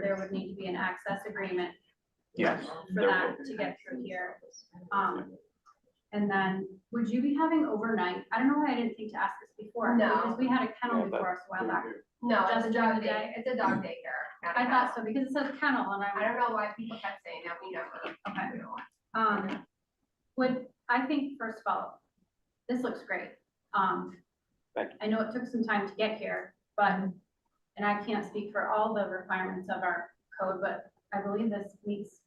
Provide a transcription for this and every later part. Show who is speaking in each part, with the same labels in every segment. Speaker 1: there would need to be an access agreement
Speaker 2: Yes,
Speaker 1: for
Speaker 2: there
Speaker 1: that
Speaker 2: will
Speaker 1: to get through here. Um, and then, would you be having overnight, I don't know why I didn't think to ask this before.
Speaker 3: No.
Speaker 1: Because we had a kennel
Speaker 2: Yeah, but-
Speaker 1: before us a while back.
Speaker 3: No, it's
Speaker 1: Just
Speaker 3: a
Speaker 1: during
Speaker 3: dog
Speaker 1: the
Speaker 3: day, it's a dog daycare. not a
Speaker 1: I thought
Speaker 3: kennel.
Speaker 1: so, because it says kennel and
Speaker 3: I
Speaker 1: I,
Speaker 3: don't know why people kept saying that, we never.
Speaker 1: Okay.
Speaker 3: we don't want-
Speaker 1: um, would, I think, first of all, this looks great. Um,
Speaker 2: Thank you.
Speaker 1: I know it took some time to get here, but, and I can't speak for all the requirements of our code, but I believe this meets,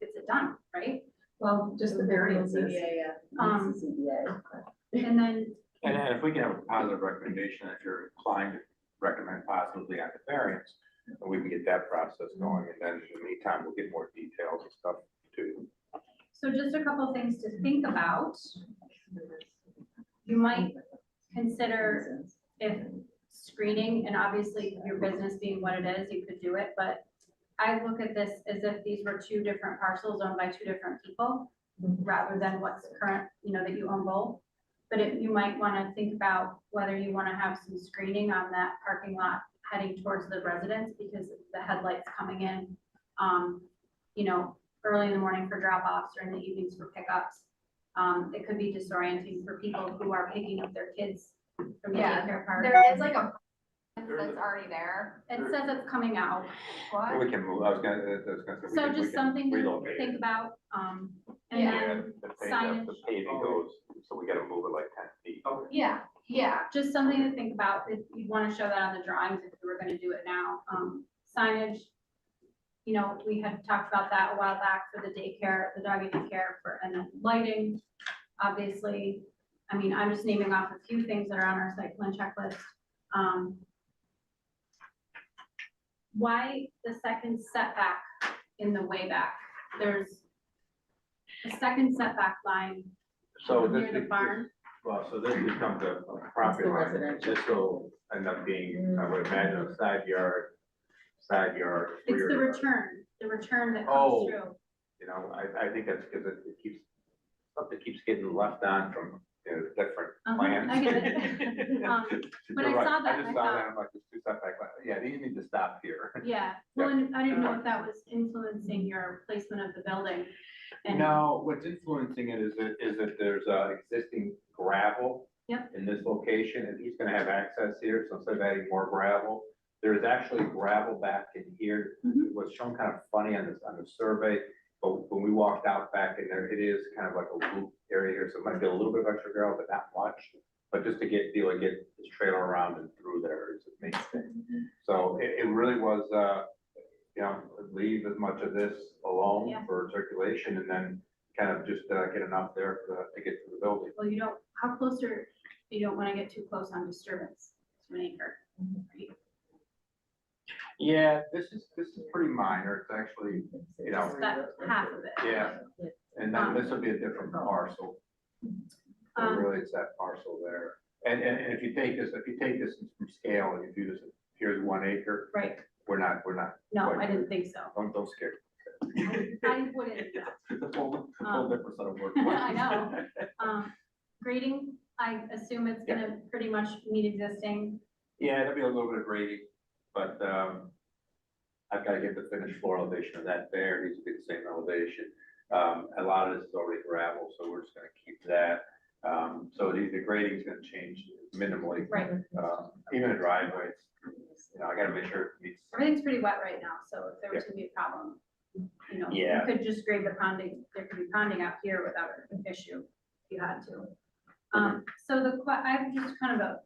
Speaker 1: gets it done, right? oh,
Speaker 4: Well, just the variances.
Speaker 1: Um,
Speaker 4: It's the ZBA.
Speaker 1: And then
Speaker 2: And then if we can have a positive recommendation, if you're inclined to recommend positively on the variance, and we can get that process going, and then in the meantime, we'll get more details and stuff too.
Speaker 1: So just a couple things to think about. You might consider if screening, and obviously your business being what it is, you could do it, but I look at this as if these were two different parcels owned by two different people, rather than what's current, you know, that you own both. But it you might wanna think about whether you wanna have some screening on that parking lot heading towards the residence, because the headlights coming in, um, you know, early in the morning for drop-offs or in the evenings for pickups. Um, it could be disorienting for people who are picking up their kids from the
Speaker 3: Yeah,
Speaker 1: daycare park.
Speaker 3: There is like a,
Speaker 2: There's
Speaker 3: that's
Speaker 2: a-
Speaker 3: already there.
Speaker 1: It says it's coming out,
Speaker 2: Well,
Speaker 3: What?
Speaker 2: We can move, I was gonna, I was gonna say. we
Speaker 1: so
Speaker 2: can- we
Speaker 1: just
Speaker 2: can
Speaker 1: something to
Speaker 2: relocate
Speaker 1: think
Speaker 2: it.
Speaker 1: about, um, and
Speaker 3: Yeah.
Speaker 2: Yeah,
Speaker 1: then
Speaker 2: the paving, the
Speaker 1: signage.
Speaker 2: paving goes, so we gotta move it like ten feet.
Speaker 3: Yeah, yeah.
Speaker 1: just something to think about, if you wanna show that on the drawings, if we were gonna do it now, um, signage. You know, we had talked about that a while back for the daycare, the doggy daycare, for, and then lighting, obviously. I mean, I'm just naming off a few things that are on our site plan checklist, um. Why the second setback in the way back? There's a second setback line
Speaker 2: So this
Speaker 1: near the
Speaker 2: is-
Speaker 1: barn,
Speaker 2: Well, so this becomes a a
Speaker 4: It's the
Speaker 2: property line,
Speaker 4: residential.
Speaker 2: this will end up being, I would imagine, a side yard, side yard.
Speaker 1: it's
Speaker 2: rear
Speaker 1: the
Speaker 2: yard.
Speaker 1: return, the return that
Speaker 2: Oh.
Speaker 1: comes through.
Speaker 2: You know, I, I think that's because it it keeps, something keeps getting left on from, you know, different
Speaker 1: Uh-huh,
Speaker 2: plans.
Speaker 1: I get it. Um, when I
Speaker 2: You're right.
Speaker 1: saw that,
Speaker 2: I just
Speaker 1: I
Speaker 2: saw
Speaker 1: thought-
Speaker 2: that, I'm like, there's two setback, lines. yeah, these need to stop here.
Speaker 1: Yeah, well, and I didn't know if that was influencing your placement of the building. and-
Speaker 2: No, what's influencing it is that, is that there's uh existing gravel.
Speaker 1: Yep.
Speaker 2: In this location, and he's gonna have access here, so instead of adding more gravel, there is actually gravel back in here.
Speaker 1: Mhm.
Speaker 2: It was shown kind of funny on this, on the survey, but when we walked out back in there, it is kind of like a loop area here, so it might be a little bit of extra gravel, but not much. But just to get, be able to get this trailer around and through there is a main thing. So it, it really was, uh, you know, leave as much of this alone
Speaker 1: Yeah.
Speaker 2: for circulation and then kind of just uh, get enough there for the- to get to the building.
Speaker 1: Well, you don't, how close are, you don't wanna get too close on disturbance to an acre. right?
Speaker 2: Yeah, this is, this is pretty minor. It's actually, you know,
Speaker 1: Just that half of it.
Speaker 2: yeah. And then this will be a different parcel. So
Speaker 1: oh. Um,
Speaker 2: Really, it's that parcel there. And, and, and if you take this, if you take this from scale and you do this, here's one acre,
Speaker 1: right,
Speaker 2: we're not, we're not,
Speaker 1: no, I didn't think so.
Speaker 2: don't, don't scare.
Speaker 1: I wouldn't,
Speaker 2: The full, the full
Speaker 1: Um,
Speaker 2: difference of work.
Speaker 1: I know. um, grading, I assume it's gonna pretty much meet existing.
Speaker 2: Yeah, it'll be a little bit of grading, but, um, I've gotta get the finished floor elevation of that there, It needs to be the same elevation. Um, a lot of this is already gravel, so we're just gonna keep that. Um, so the, the grading's gonna change minimally,
Speaker 1: Right,
Speaker 2: um, even the driveway, it's, you know, I gotta make sure it meets.
Speaker 1: everything's pretty wet right now, so if there was gonna be a problem, you know, you
Speaker 2: Yeah.
Speaker 1: could just grade the ponding, there could be ponding out here without an issue if you had to. Um, so the que, I have just kind of a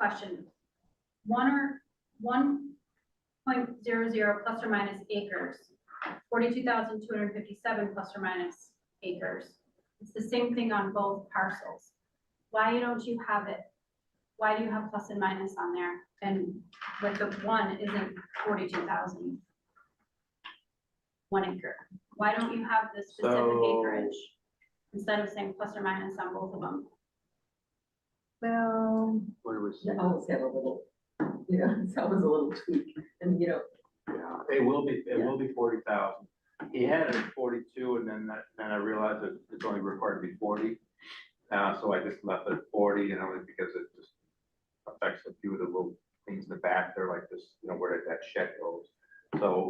Speaker 1: question. One or, one point zero zero plus or minus acres, forty-two thousand two hundred fifty-seven plus or minus acres. It's the same thing on both parcels. Why don't you have it, why do you have plus and minus on there? And with the one isn't forty-two thousand? One acre. Why don't you have the specific
Speaker 2: So-
Speaker 1: acreage? Instead of saying plus or minus on both of them?
Speaker 4: Well,
Speaker 2: Where was?
Speaker 4: you always have a little, you know, it's always a little tweak and, you know,
Speaker 2: Yeah, it will be, it will be forty thousand. He had it at forty-two and then that, then I realized that it's only required to be forty. Uh, so I just left it at forty, you know, because it just affects a few of the little things in the back there, like this, you know, where that shed goes. So